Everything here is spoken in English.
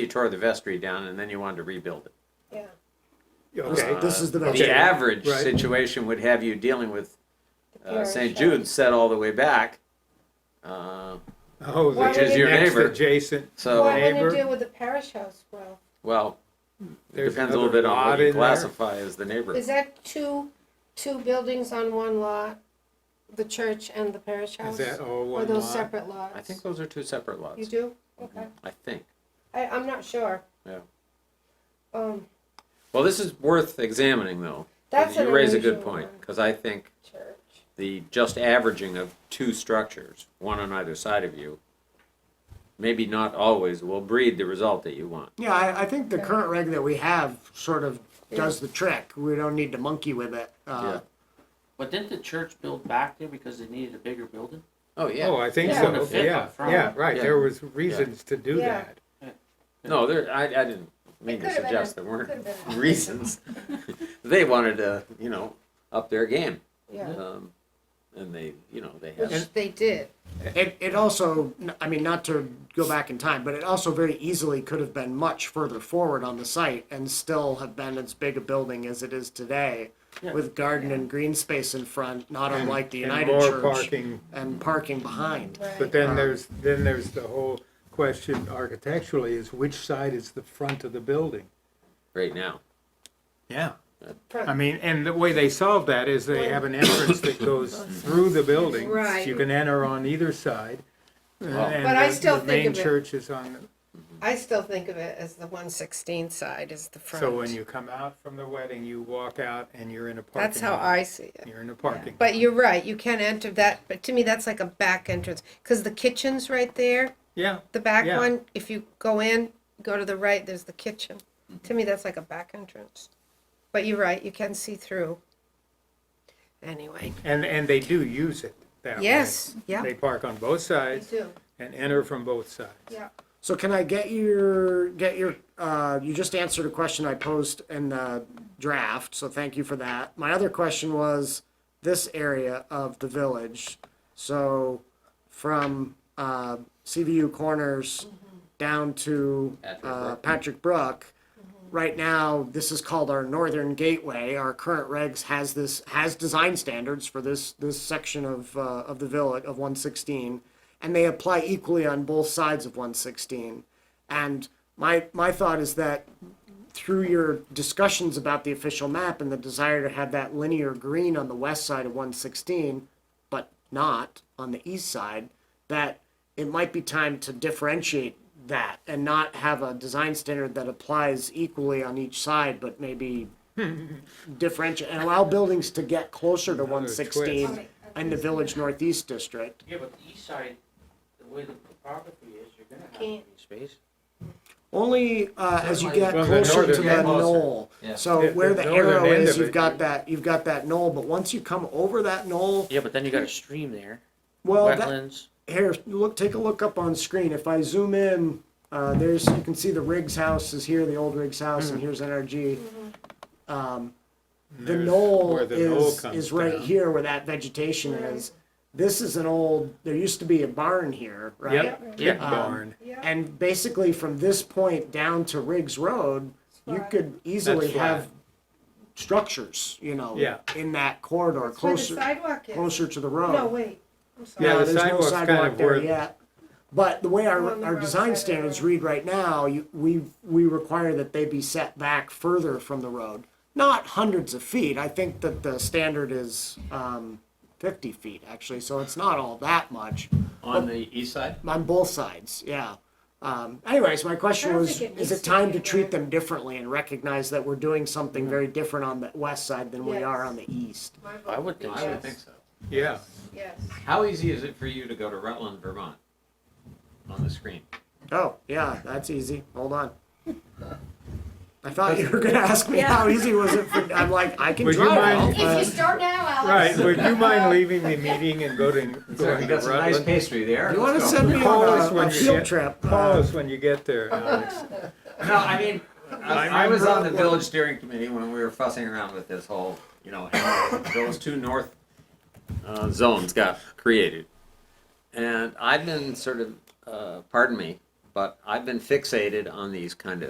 You tore the vestry down and then you wanted to rebuild it. Yeah, Okay, this is the Uh, next. The one. average Right. situation would have you dealing with the uh, parish St. house. Jude's set all the way back. Uh, Oh, the Which is next your neighbor. Adjacent. So- Well, I want neighbor. to deal with the parish house well. Well, it There's depends a little another bit on what lot you in there. classify as the neighborhood. Is that two, two buildings on one lot? The church and the parish Is house? that all Or one those lot? separate lots? I think those are two separate lots. You do? Okay. I think. I, I'm not sure. Yeah. Um, Well, this is worth examining though. that's an You raise a good unusual point, one, because I think Church. the just averaging of two structures, one on either side of you, maybe not always will breed the result that you want. Yeah, I, I think the current reg that we have sort of does the trick. We don't need to monkey with it. Uh, But didn't the church build back there because they needed a bigger building? Oh, yeah. Oh, I think Yeah. so, Wouldn't fit yeah, up front. yeah, right, Yeah. there was reasons to do Yeah. that. No, there, I, I didn't mean to could've been suggest a- there weren't could've been a- reasons. They wanted to, you know, up their game. Yeah, Um, and they, you know, they have, which they did. It, it also, I mean, not to go back in time, but it also very easily could have been much further forward on the site and still have been as big a building as it is today Yeah. with garden and green space in front, not unlike the And United more Church. Parking, And parking behind. but Right. then Uh-huh. there's, then there's the whole question architecturally is which side is the front of the building? right now. Yeah. Front. I mean, and the way they solve that is they have an entrance that goes through the building. Right. You can enter on either side. But I still think The main of it- church is on, I still think of it as the one sixteen side is the front. so when you come out from the wedding, you walk out and you're in a parking. That's how lot. I see it. You're in a parking. But you're right, you can enter that, but to me, that's like a back entrance, because the kitchen's right there, Yeah, the back Yeah. one, if you go in, go to the right, there's the kitchen. To me, that's like a back entrance. But you're right, you can see through. Anyway, and, and they do use it that way. yes, yeah, They park on both you sides do, and enter from both sides. yeah. So can I get your, get your, uh, you just answered a question I posed in the draft, so thank you for that. My other question was this area of the village. So from, uh, CVU Corners down to, Mm-hmm. Patrick uh, Brook. Patrick Brook. Right now, this is called our northern gateway. Our current regs has this, has design standards for this, this section of, uh, of the village, of one sixteen. And they apply equally on both sides of one sixteen. And my, my thought is that through your discussions about the official map and the desire to have that linear green on the west side of one sixteen, but not on the east side, that it might be time to differentiate that and not have a design standard that applies equally on each side, but maybe differentiate and allow buildings to get closer to Another one sixteen twist. and the village northeast district. Yeah, but the east side, the way the topography is, you're gonna have Can't. green space. Only uh, as you get Well, the closer to northern- the yeah, closer. knoll. Yeah. The- So the where the northern arrow end is, of you've it. got that, you've got that knoll, but once you come over that knoll, Yeah, but then you got a stream there, well, that, wetlands. here, look, take a look up on screen. If I zoom in, uh, there's, you can see the Riggs house is here, the old Riggs house, Hmm. and here's NRG. Um, And the there's knoll where the knoll is, comes is right down. here where that vegetation Right. is. This is an old, there used to be a barn here, right? Yep, big Um, barn. Yeah. And basically from this point down to Riggs Road, you Flat. could easily That's flat. have structures, you know, Yeah. in that corridor, That's where the closer, sidewalk is. closer to the road. No, wait, I'm sorry. Yeah, No, the there's no sidewalk's kind sidewalk of there where- yet. But the way Along our, the our road design side of the standards road. read right now, you, we, we require that they be set back further from the road. Not hundreds of feet, I think that the standard is, um, fifty feet actually, so it's not all that much, On the east side? on both sides, yeah. Um, anyways, my I question don't was, think it is needs it to time be to treat there. them differently and recognize that we're doing something very different on the west side than we are Yes. on the east? My vote I would would be think I would yes. think so. Yeah, Yes, How easy is it for you to go to Rutland, Vermont? On the screen? Oh, yeah, that's easy. Hold on. I thought you were gonna ask me how easy was it for, I'm like, I can Would you drive. mind- uh, If you but- start now, Alex. right, would you mind leaving the meeting and go to, going to Rutland? pastry there. You wanna send me Call us on a- when a you field get- trip? Call uh, us when you get there, Alex. No, I mean, I, I I was on the remember- village steering committee when we were fussing around with this whole, you know, how those two north uh, zones got created. And I've been sort of, uh, pardon me, but I've been fixated on these kind of